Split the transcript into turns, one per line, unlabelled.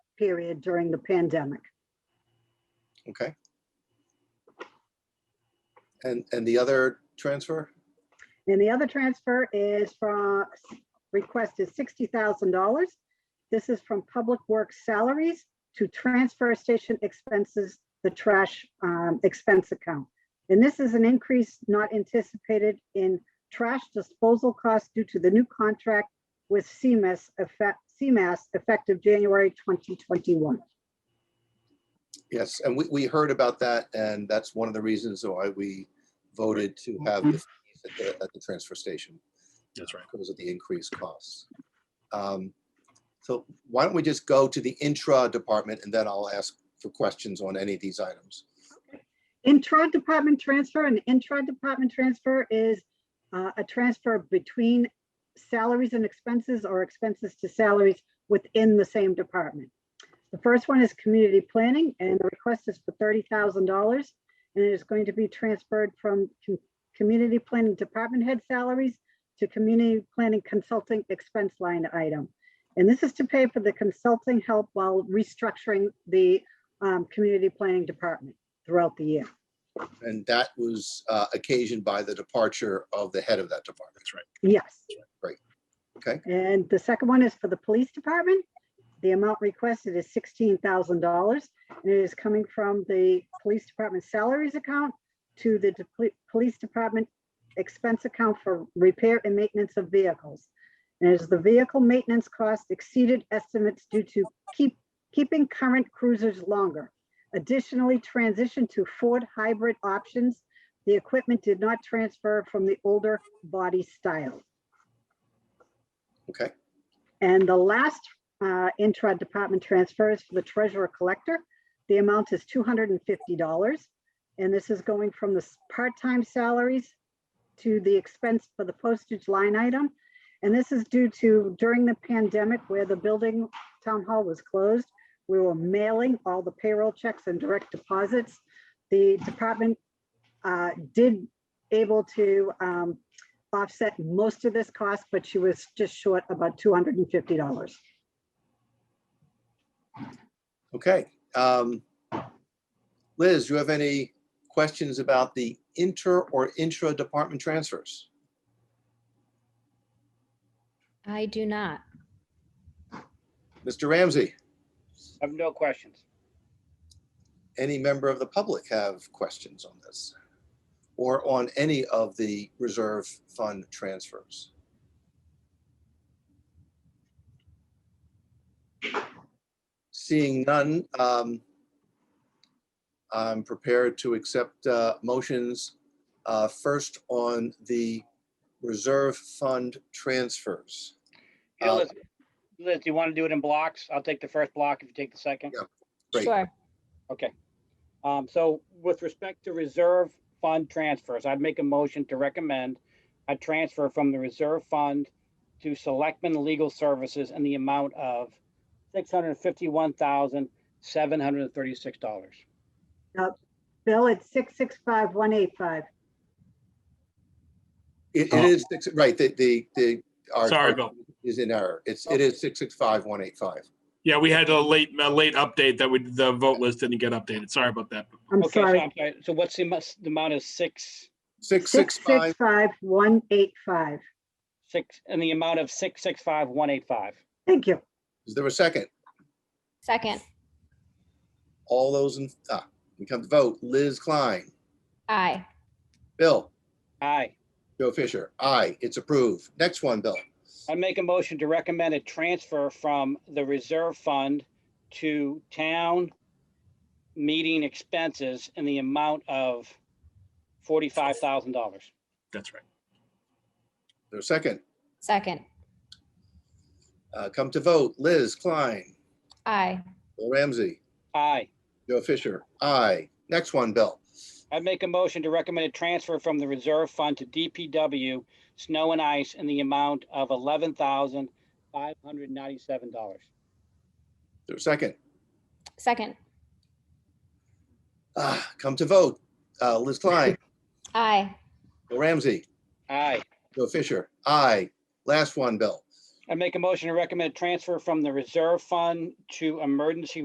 period during the pandemic.
Okay. And, and the other transfer?
And the other transfer is from, request is sixty thousand dollars. This is from Public Works salaries to transfer station expenses, the trash um, expense account. And this is an increase not anticipated in trash disposal costs due to the new contract with CMAS effect, CMAS effective January twenty twenty-one.
Yes, and we, we heard about that, and that's one of the reasons why we voted to have the fees at the, at the transfer station.
Mm-hmm. That's right.
Because of the increased costs. Um, So why don't we just go to the intra department, and then I'll ask for questions on any of these items.
Intra-department transfer, an intra-department transfer is uh, a transfer between salaries and expenses or expenses to salaries within the same department. The first one is community planning and the request is for thirty thousand dollars. And it is going to be transferred from com- community planning department head salaries to community planning consulting expense line item. And this is to pay for the consulting help while restructuring the um, community planning department throughout the year.
And that was uh, occasioned by the departure of the head of that department.
That's right.
Yes.
Great. Okay.
And the second one is for the police department. The amount requested is sixteen thousand dollars. and It is coming from the police department salaries account to the deple- police department expense account for repair and maintenance of vehicles. And as the vehicle maintenance cost exceeded estimates due to keep, keeping current cruisers longer. Additionally, transition to Ford hybrid options. The equipment did not transfer from the older body style.
Okay,
And the last uh, intra-department transfer is for the treasurer collector. The amount is two hundred and fifty dollars. And this is going from the s- part-time salaries to the expense for the postage line item. And this is due to during the pandemic where the building town hall was closed, we were mailing all the payroll checks and direct deposits. The department uh, did able to um, offset most of this cost, but she was just short about two hundred and fifty dollars.
okay. Um, Liz, you have any questions about the inter or intra department transfers?
I do not.
Mr. Ramsey?
I have no questions.
any member of the public have questions on this or on any of the reserve fund transfers? Seeing none, um, I'm prepared to accept uh, motions uh, first on the reserve fund transfers.
Hey,
Uh,
Liz, Liz, do you want to do it in blocks? I'll take the first block if you take the second.
Yeah. Great.
Sure.
Okay. Um, so with respect to reserve fund transfers, I'd make a motion to recommend a transfer from the reserve fund to Selectmen Legal Services in the amount of six hundred fifty-one thousand, seven hundred thirty-six dollars.
Bill, it's six, six, five, one, eight, five.
It it is, six- right, the, the, the. our-
Sorry, Bill.
Is in error. It's, it is 665-185.
Yeah, we had a late, a late update that we, the vote list didn't get updated. Sorry about that.
I'm
Okay, so
sorry.
I'm sorry. So what's the mus- the amount is six,
Six, six, five,
five, one, eight, five.
six, in the amount of six, six, five, one, eight, five?
Thank you.
is there a second?
Second,
All those in, ah, we come to vote. Liz Klein,
aye.
Bill,
Aye.
Joe Fisher, aye, it's approved. Next one, Bill.
I'd make a motion to recommend a transfer from the reserve fund to town meeting expenses in the amount of forty-five thousand dollars.
That's right.
There's a second.
Second,
Uh, Come to vote. Liz Klein,
aye.
Bill Ramsey,
Aye.
Joe Fisher, aye. Next one, Bill.
I'd make a motion to recommend a transfer from the reserve fund to DPW snow and ice in the amount of eleven thousand five hundred ninety-seven dollars.
There's a second.
Second,
Ah, Come to vote. Uh, Liz Klein,
aye.
Bill Ramsey,
Aye.
Joe Fisher, aye. Last one, Bill.
I'd make a motion to recommend transfer from the reserve fund to emergency